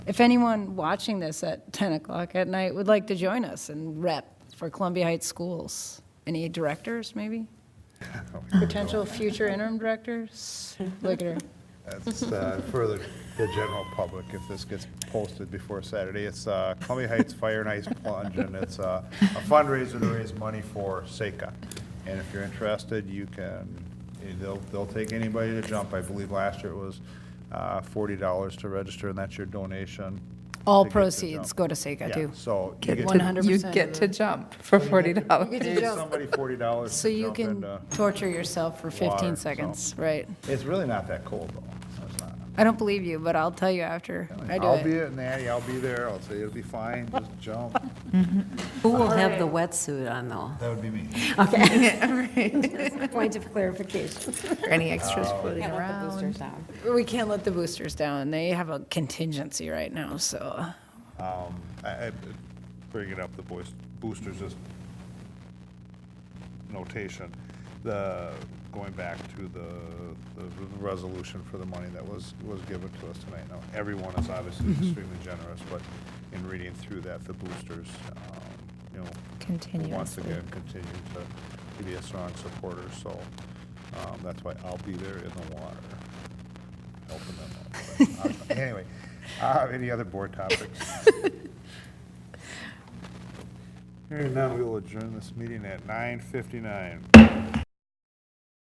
If anyone watching this at 10 o'clock at night would like to join us and rep for Columbia Heights Schools, any directors, maybe? Oh, Potential future interim directors? Look at her. That's uh, for the, the general public, if this gets posted before Saturday. It's uh, Columbia Heights Fire and Ice Plunge, and it's uh, a fundraiser to raise money for SECA. And if you're interested, you can, eh, they'll, they'll take anybody to jump. I believe last year it was uh, $40 to register, and that's your donation. All to get to proceeds jump. go to SECA, Yeah, too. so. you Get get to- to 100%. You get to jump for forty get dollars. to pay jump. Somebody $40 So to you jump can into, torture yourself for 15 water, so- seconds, right? it's really not that cold, though. It's not. I don't believe you, but I'll tell you after I do I'll be it. at Natty, I'll be there, I'll say it'll be fine, just jump. Who will have the wetsuit on though? That would be me. Point of clarification. Any extras floating around? We can't let the boosters down. They have a contingency right now, so. I, I bring it up, the boys, boosters just notation, the, going back to the, the resolution for the money that was, was given to us tonight. Now, everyone is obviously extremely generous, but in reading through that, the boosters, um, you know. Once Continuously. again, continue to, to be a strong supporter, so, um, that's why I'll be there in the water, helping them out. But, uh, Anyway, uh, any other board topics? Hearing none, we will adjourn this meeting at nine fifty-nine.